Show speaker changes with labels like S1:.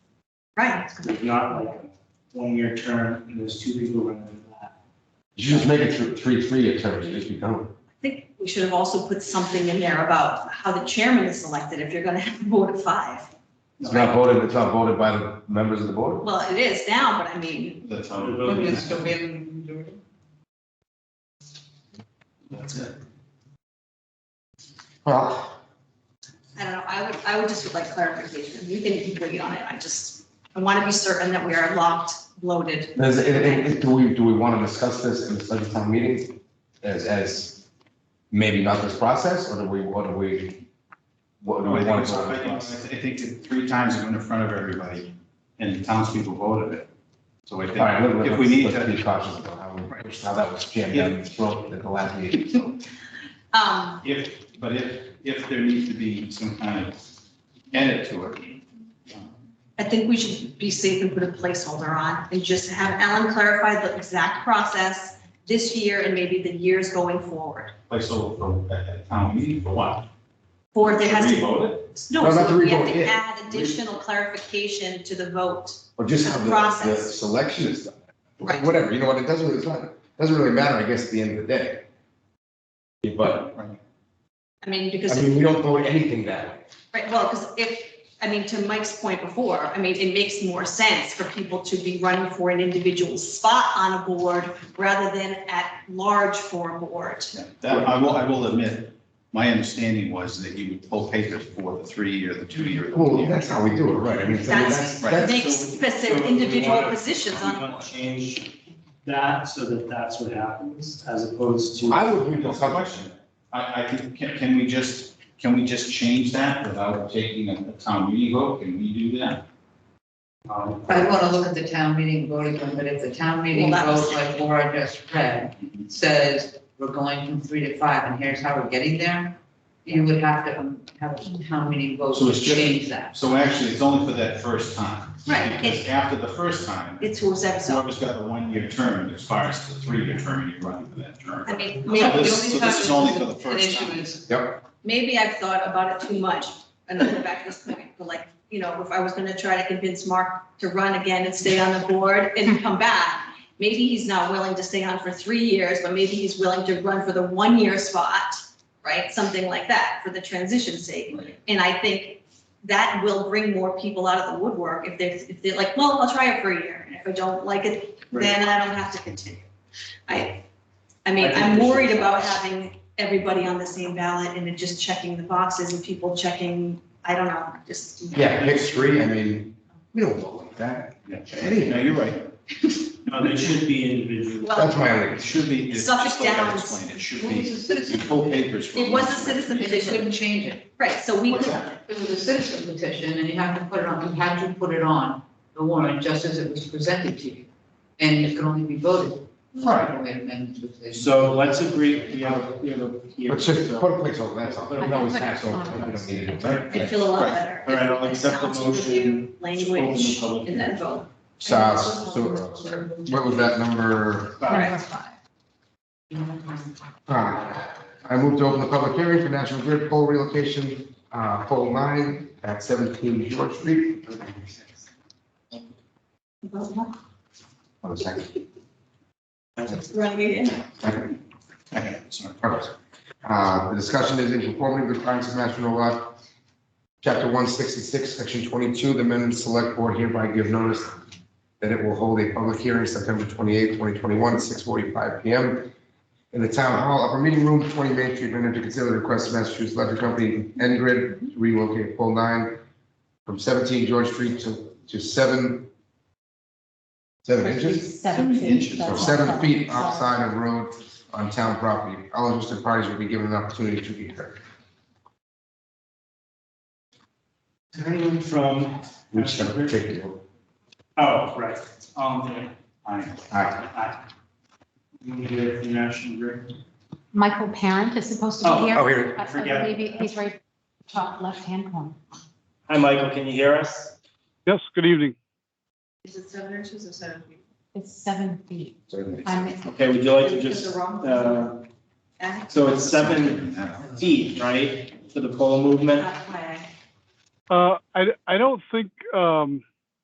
S1: Right.
S2: There's not like a one-year term, and there's two people running for that.
S3: You should just make it thr- three, three terms, and just be done. with it.
S1: I think we should have also put something in there about how the chairman is selected if you're gonna have a board of five.
S3: It's not voted, it's not voted by the members of the board.
S1: Well, it is now, but I mean,
S4: That's how.
S2: The
S4: it
S2: vote
S4: goes.
S2: is-
S5: Mr. Wynn, do it.
S2: That's it.
S3: Well,
S1: I don't know, I would, I would just would like clarification. You can agree on it. I just, I want to be certain that we are locked, loaded.
S3: is, it- it- it- do we, do we want to discuss this in the special town meeting as, as maybe not this process, or do we, what do we? What do
S4: No,
S3: we
S4: I think,
S3: want
S4: it's- I
S3: to?
S4: think- I think it three times it went in front of everybody and the townspeople voted it. So I
S3: All right, let-
S4: think
S3: let-
S4: if we need
S3: let's
S4: to,
S3: Be cautious about how we, how that was jammed down your throat at the last meeting. so.
S1: Um,
S4: if, but if, if there needs to be some kind of edit to it.
S1: I think we should be safe and put a placeholder on and just have Ellen clarify the exact process this year and maybe the years going forward.
S4: Like so for at- at town meeting for what?
S1: Or if there has to,
S4: Revote it?
S1: no,
S3: No,
S1: so
S3: not to
S1: we have
S3: revote,
S1: to
S3: yeah.
S1: add additional clarification to the vote.
S3: Or just how the, the
S1: Process.
S3: selection is done.
S1: Right.
S3: Whatever, you know what, it doesn't really, it's not, doesn't really matter, I guess, at the end of the day. But,
S4: Right.
S1: I mean, because,
S3: I mean, we don't vote anything that way.
S1: right, well, because if, I mean, to Mike's point before, I mean, it makes more sense for people to be running for an individual spot on a board rather than at large for a board.
S4: Yeah, That, I will, I will admit, my understanding was that you would pull papers for the three-year, the two-year, the
S3: Well,
S4: one-year.
S3: that's how we do it, right? I mean, so
S1: That's-
S3: that's,
S4: Right.
S3: that's,
S1: Make specific
S2: So we
S1: individual
S2: wanna-
S1: positions
S2: We
S1: on,
S2: want to change that so that that's what happens, as opposed to.
S3: I would read the
S4: That's the
S3: question.
S4: question. I, I can, can, can we just, can we just change that without taking a a town meeting vote? Can we do that?
S2: Um,
S5: I want to look at the town meeting vote again, but if the town meeting
S1: Well, that was-
S5: vote, like Laura just read, says we're going from three to five, and here's how we're getting there, you would have to um, have a town meeting vote
S4: So
S5: to
S4: it's just-
S5: change that.
S4: So actually, it's only for that first time.
S1: Right.
S4: Because after the first time,
S1: it's who's ever, so,
S4: whoever's got the one-year term expires to the three-year term, and you're running for that term.
S1: I mean,
S4: So
S1: maybe,
S4: this, so this is only for the first
S5: An issue
S4: time.
S5: is,
S1: maybe I've thought about it too much, and I'll go back to this point, but like, you know, if I was gonna try to convince Mark to run again and stay on the board and come back, maybe he's not willing to stay on for three years, but maybe he's willing to run for the one-year spot, right? Something like that, for the transition sake.
S4: Right.
S1: And I think that will bring more people out of the woodwork if they're, if they're like, well, I'll try it for a year, and if I don't like it, then I don't have to continue. I, I mean,
S2: I think
S1: I'm
S2: we should-
S1: worried about having everybody on the same ballot and it just checking the boxes and people checking, I don't know, just.
S3: yeah, pick three, I mean, we don't vote like that.
S4: Yeah. No, you're right.
S2: No, they should be individual.
S1: Well,
S3: That's my only,
S4: It should be, it's
S1: Suffolk
S4: just the way I
S1: Downs.
S4: explained it, it should
S5: well, it's
S4: be,
S5: a citizen,
S4: you pull papers. for
S1: It was a
S4: one-year.
S1: citizen
S5: you just couldn't change it.
S1: Right, so we
S4: What's
S1: could,
S4: that?
S5: It was a citizen petition, and you have to put it on, you had to put it on the warrant just as it was presented to you. And it could only be voted.
S4: Right.
S5: Wait a minute, it was-
S2: So let's agree, we have, a- we have a. here,
S3: but just
S2: so-
S3: put a placeholder, that's all. We can always pass over, we don't need to do
S1: I'd
S3: that.
S1: feel a lot
S4: Right.
S1: better.
S2: All right, I'll accept the
S1: Sounds review, Language,
S4: Open the public
S1: and then vote.
S3: So, so, what was that number?
S1: Right.
S3: Uh, I moved to open the public hearing for National Grid pole relocation, uh, pole nine at seventeen George Street.
S1: Vote.
S3: Hold on a second.
S1: Right here.
S3: Second.
S4: Okay, sorry.
S3: Alright. Uh, The discussion is in conformity with requirements of National Law, Chapter 166, Section 22, the Amendment Select Board hereby give notice that it will hold a public hearing September 28, 2021, at 6:45 PM in the Town Hall, Upper Meeting Room, 20 Main Street, Manhattan, to consider the request of Massachusetts Electric Company, Ngrid, to relocate pole 9 from 17 George Street to to 7, 7 inches?
S6: Seven
S4: Inches.
S6: feet.
S3: or
S6: that's
S3: seven
S6: awesome.
S3: feet
S6: Sorry.
S3: outside of road on town property. All interested parties will be given an opportunity to be heard.
S2: Is there anyone from?
S3: Which is particular.
S2: Oh, right, um, there. I,
S3: Aye.
S2: I. You hear the national grid?
S6: Michael Parent is supposed
S2: Oh,
S6: to be here.
S3: Oh, here,
S6: I- I
S2: forget.
S6: believe he- He's right top left-hand corner.
S2: Hi, Michael, can you hear us?
S7: Yes, good evening.
S1: Is it seven inches or seven feet?
S6: It's seven feet.
S3: certainly.
S6: I'm-
S2: Okay, would you like to
S1: Is it
S2: just,
S1: the wrong-
S2: uh,
S1: Uh,
S2: so it's seven feet, right, for the pole movement?
S1: that way.
S7: Uh, I, I don't think, um,